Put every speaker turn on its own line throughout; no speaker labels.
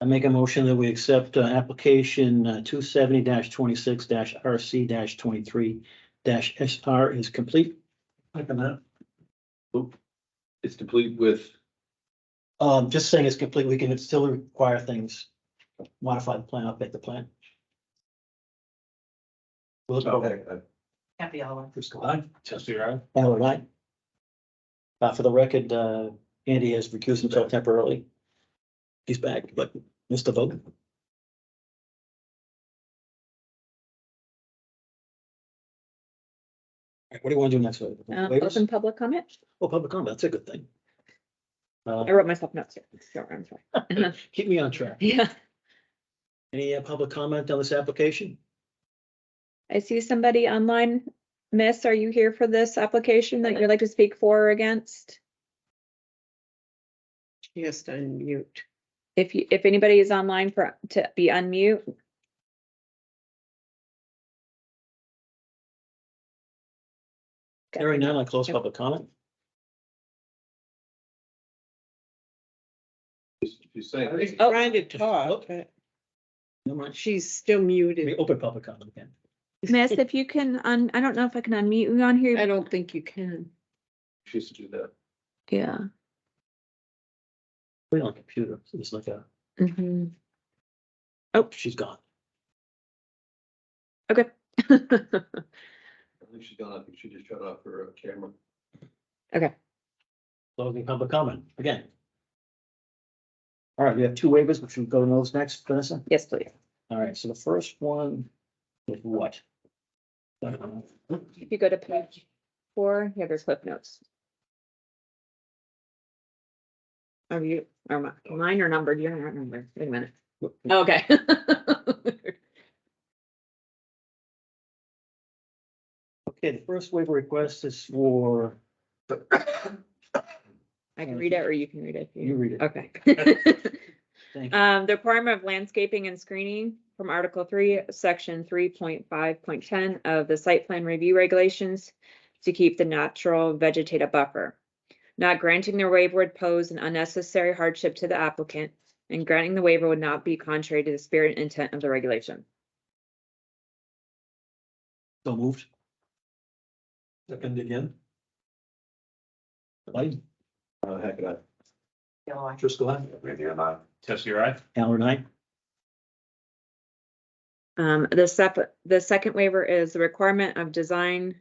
I make a motion that we accept uh, application uh, two seventy twenty-six R C twenty-three S R is complete. Second that.
It's complete with,
Um, just saying it's complete, we can still require things, modify the plan, update the plan. Will
okay,
Cavalier,
uh,
Happy hour.
aye. Uh, for the record, uh, Andy has recused himself temporarily. He's back, but missed the vote. What do you want to do next? Wade?
Uh,
Waivers?
open public comment?
Oh, public comment, that's a good thing. Uh,
I wrote myself notes here. Sorry, I'm sorry.
keep me on track.
Yeah,
Any uh, public comment on this application?
I see somebody online. Miss, are you here for this application that you'd like to speak for or against?
Yes, unmute.
If you, if anybody is online for, to be unmute, Okay.
Hearing none, I close public comment.
she's saying.
I was
that-
Oh.
trying to talk, but
No, mind.
she's still
We
muted.
open public comment again.
Miss, if you can, un I don't know if I can unmute you on
I
here.
don't think you can.
She used to do that.
Yeah.
Wait on computer, so it's like a,
Mhm.
she's gone.
Okay.
I think she's gone, I think she just shut off her uh, camera.
Closing public comment again. All right, we have two waivers, which we go to those next, Vanessa.
Yes, please.
All right, so the first one is what?
If you go to page four, yeah, there's clip notes. Are you, are mi- mine are numbered? You're not numbered. Wait a minute. Okay.
Okay, the first waiver request is for,
I can read it or you can read it. if
you
you-
read it.
Okay.
Thank you.
Um, the requirement of landscaping and screening from Article three, section three point five point ten of the site plan review regulations to keep the natural vegetative buffer. Not granting the waiver would pose an unnecessary hardship to the applicant, and granting the waiver would not be contrary to the spirit and intent of the regulation.
So moved. Second again. Light,
Uh, heck, I.
Yellow eye.
Driscoll, aye.
Randy, I'm not.
Hallen, aye.
Um, the sep, the second waiver is the requirement of design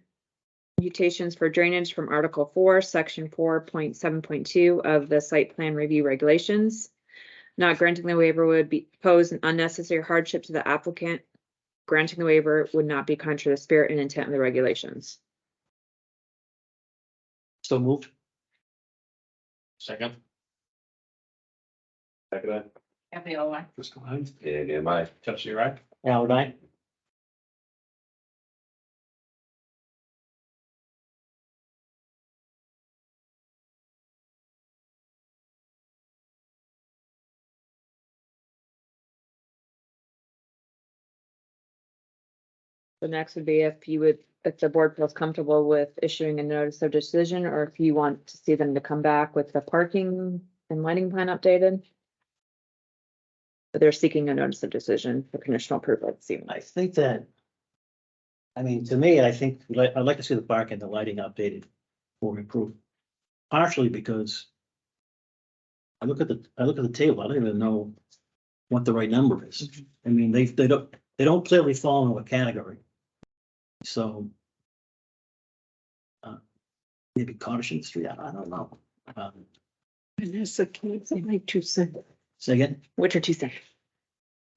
mutations for drainage from Article four, section four point seven point two of the site plan review regulations. Not granting the waiver would be, pose an unnecessary hardship to the applicant. Granting the waiver would not be contrary to the spirit and intent of the regulations.
So moved.
Second.
Heck, I.
Happy yellow eye.
Fiscal Hines.
Randy, I'm not.
Trustee Wright.
Hallen, aye.
The next would be if you would, if the board feels comfortable with issuing a notice of decision, or if you want to see them to come back with the parking and lighting plan updated. But they're seeking a notice of decision for conditional approval, it seems
I
like.
think that. I mean, to me, I think, li- I'd like to see the park and the lighting updated or improved, partially because. I look at the, I look at the table, I don't even know what the right number is. I mean, they, they don't, they don't clearly fall into a category. So. uh, Maybe caution street, I I don't know. Um,
Vanessa, can I say my two cents?
Say again,
Which are two seconds.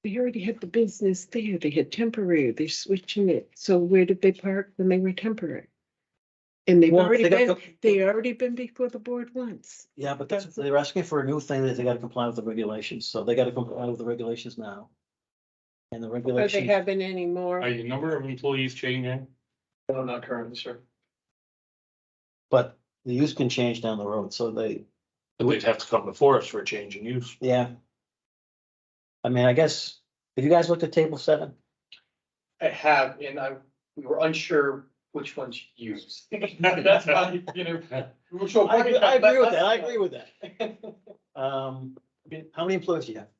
They already had the business there. They had temporary. They're switching it. So where did they park when they were temporary? And they've
Well,
already
they got
been,
the-
they already been before the board once.
yeah, but that's, they're asking for a new thing that they gotta comply with the regulations, so they gotta comply with the regulations now. And the
Or
regulations.
they haven't anymore.
Are your number of employees changing?
No, not currently, sir.
But the use can change down the road, so they,
But They'd have to come before us for a change in use.
yeah. I mean, I guess, have you guys looked at table seven?
I have, and I, we were unsure which one to use. That's why, you know. we were so-
I, agree- I agree with that, I agree with that. Um, I mean, how many employees do you have?